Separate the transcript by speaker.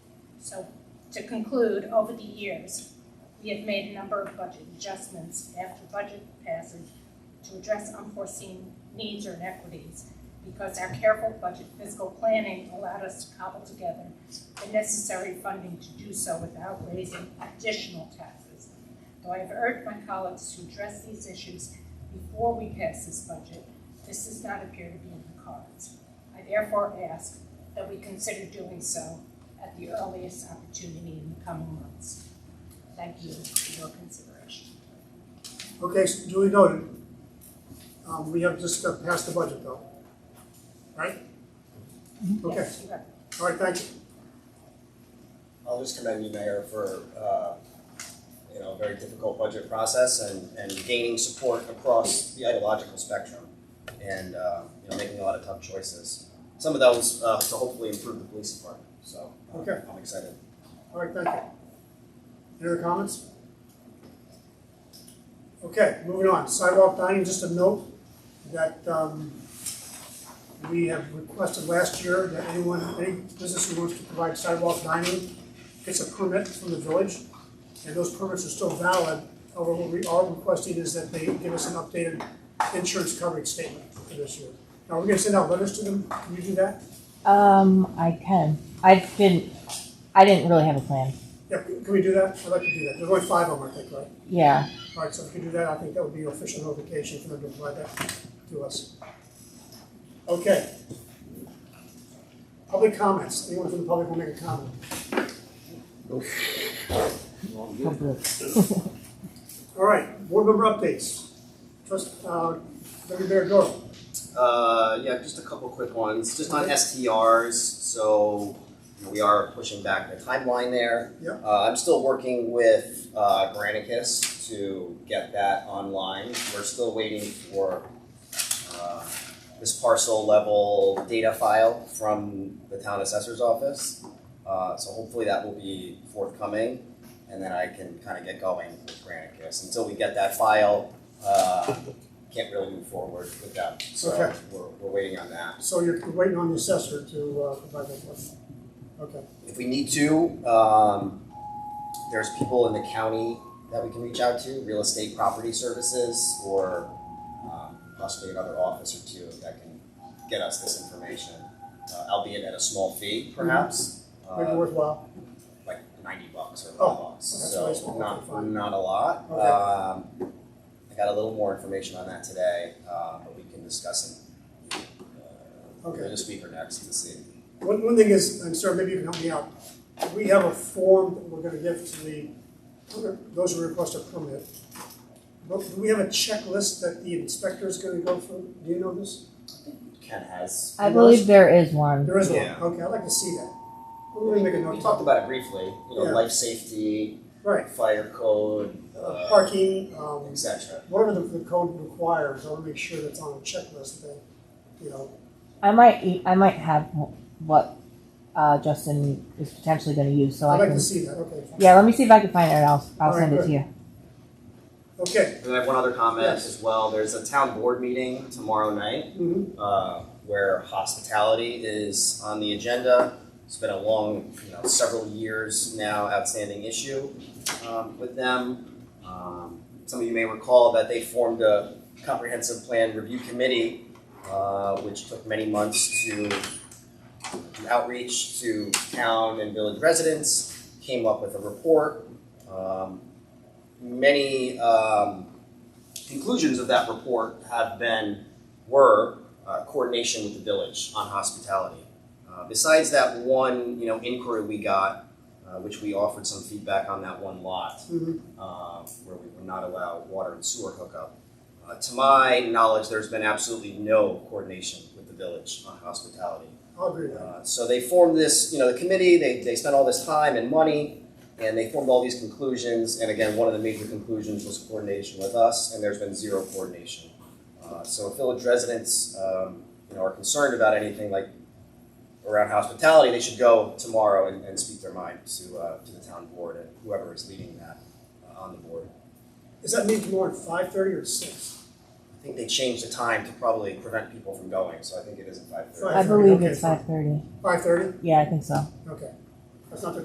Speaker 1: So to conclude, over the years, we have made a number of budget adjustments after budget passage to address unforeseen needs or inequities because our careful budget fiscal planning allowed us to cobble together the necessary funding to do so without raising additional taxes. Though I have urged my colleagues to address these issues before we pass this budget, this does not appear to be in the cards. I therefore ask that we consider doing so at the earliest opportunity in the coming months. Thank you for your consideration.
Speaker 2: Okay, so duly noted. Um, we have just uh, passed the budget though. Right? Okay,
Speaker 1: Yes, you have.
Speaker 2: all right, thank you.
Speaker 3: I'll just commend you, Mayor, for, uh, you know, a very difficult budget process and, and gaining support across the ideological spectrum and, uh, you know, making a lot of tough choices. Some of those, uh, to hopefully improve the police department, so. uh,
Speaker 2: Okay.
Speaker 3: I'm excited.
Speaker 2: All right, thank you. Any other comments? Okay, moving on, sidewalk dining, just a note that, um, we have requested last year that anyone, any business who wants to provide sidewalk dining gets a permit from the village, and those permits are still valid. However, what we are requesting is that they give us an updated insurance coverage statement for this year. Now, we're gonna send out letters to them, can you do that?
Speaker 4: Um, I can. I've been. I didn't really have a plan.
Speaker 2: Yeah, can we do that? I'd like to do that, there's only five of them, I think, right?
Speaker 4: Yeah.
Speaker 2: All right, so if you do that, I think that would be your official notification for them to provide that to us. Okay. Public comments, anyone from the public will make a comment?
Speaker 4: Public.
Speaker 2: All right, board member updates. Trust, uh, Deputy Mayor Doyle.
Speaker 3: Uh, yeah, just a couple quick ones, just on STRs, so you know, we are pushing back the timeline there.
Speaker 2: Yeah.
Speaker 3: Uh, I'm still working with, uh, Granicus to get that online, we're still waiting for, uh, this parcel level data file from the town assessor's office. Uh, so hopefully that will be forthcoming, and then I can kind of get going with Granicus, until we get that file, uh, can't really move forward with that, so
Speaker 2: Okay.
Speaker 3: we're, we're waiting on that.
Speaker 2: So you're waiting on the assessor to, uh, provide that for us. Okay,
Speaker 3: If we need to, um, there's people in the county that we can reach out to, real estate property services, or, um, possibly another office or two that can get us this information, uh, albeit at a small fee
Speaker 2: Mm-hmm.
Speaker 3: perhaps.
Speaker 2: make it
Speaker 3: uh,
Speaker 2: worthwhile.
Speaker 3: like ninety bucks or
Speaker 2: Oh,
Speaker 3: five bucks,
Speaker 2: that's a nice
Speaker 3: so
Speaker 2: one.
Speaker 3: not,
Speaker 2: Fine.
Speaker 3: not a lot.
Speaker 2: Okay.
Speaker 3: Um, I got a little more information on that today, uh, but we can discuss it. uh,
Speaker 2: Okay.
Speaker 3: This week or next to see.
Speaker 2: One, one thing is, and sir, maybe you can help me out, we have a form that we're gonna give to the, those who request a permit. But do we have a checklist that the inspector is gonna go through? Do you know this?
Speaker 3: Ken has,
Speaker 4: I believe there is one.
Speaker 2: There is one,
Speaker 3: Yeah.
Speaker 2: okay, I'd like to see that. We're gonna
Speaker 3: we
Speaker 2: make a note,
Speaker 3: talked about it briefly, you know,
Speaker 2: Yeah.
Speaker 3: life safety,
Speaker 2: right,
Speaker 3: fire code,
Speaker 2: uh,
Speaker 3: uh,
Speaker 2: parking, um,
Speaker 3: et cetera.
Speaker 2: whatever the, the code requires, I wanna make sure that's on a checklist that, you know,
Speaker 4: I might. e- I might have what uh, Justin is potentially going to use, so
Speaker 2: I'd
Speaker 4: I
Speaker 2: like
Speaker 4: can.
Speaker 2: to see that, okay. fine.
Speaker 4: Yeah. Let me see if I can find it. and I'll. I'll
Speaker 2: All right,
Speaker 4: send it
Speaker 2: good.
Speaker 4: to you.
Speaker 2: Okay,
Speaker 3: And I have one other comment
Speaker 2: Yes.
Speaker 3: as well, there's a town board meeting tomorrow night.
Speaker 2: mhm,
Speaker 3: uh, where hospitality is on the agenda. It's been a long, you know, several years now outstanding issue um, with them. Um, some of you may recall that they formed a comprehensive plan review committee, uh, which took many months to do outreach to town and village residents, came up with a report. Um, many um, conclusions of that report have been, were uh, coordination with the village on hospitality. Uh, besides that one, you know, inquiry we got, uh, which we offered some feedback on that one lot,
Speaker 2: mhm,
Speaker 3: uh, where we would not allow water and sewer hookup. Uh, to my knowledge, there's been absolutely no coordination with the village on hospitality.
Speaker 2: I'll agree with that.
Speaker 3: Uh, so they formed this, you know, the committee, they, they spent all this time and money, and they formed all these conclusions, and again, one of the major conclusions was coordination with us, and there's been zero coordination. Uh, so if village residents, um, you know, are concerned about anything like around hospitality, they should go tomorrow and, and speak their mind to, uh, to the town board and whoever is leading that uh, on the board.
Speaker 2: Does that mean tomorrow at five thirty or six?
Speaker 3: I think they changed the time to probably prevent people from going, so I think it is at five thirty.
Speaker 2: Right.
Speaker 4: I believe
Speaker 2: Okay,
Speaker 4: it's
Speaker 2: fine.
Speaker 4: five thirty.
Speaker 2: Five thirty?
Speaker 4: Yeah, I think so.
Speaker 2: Okay. That's not the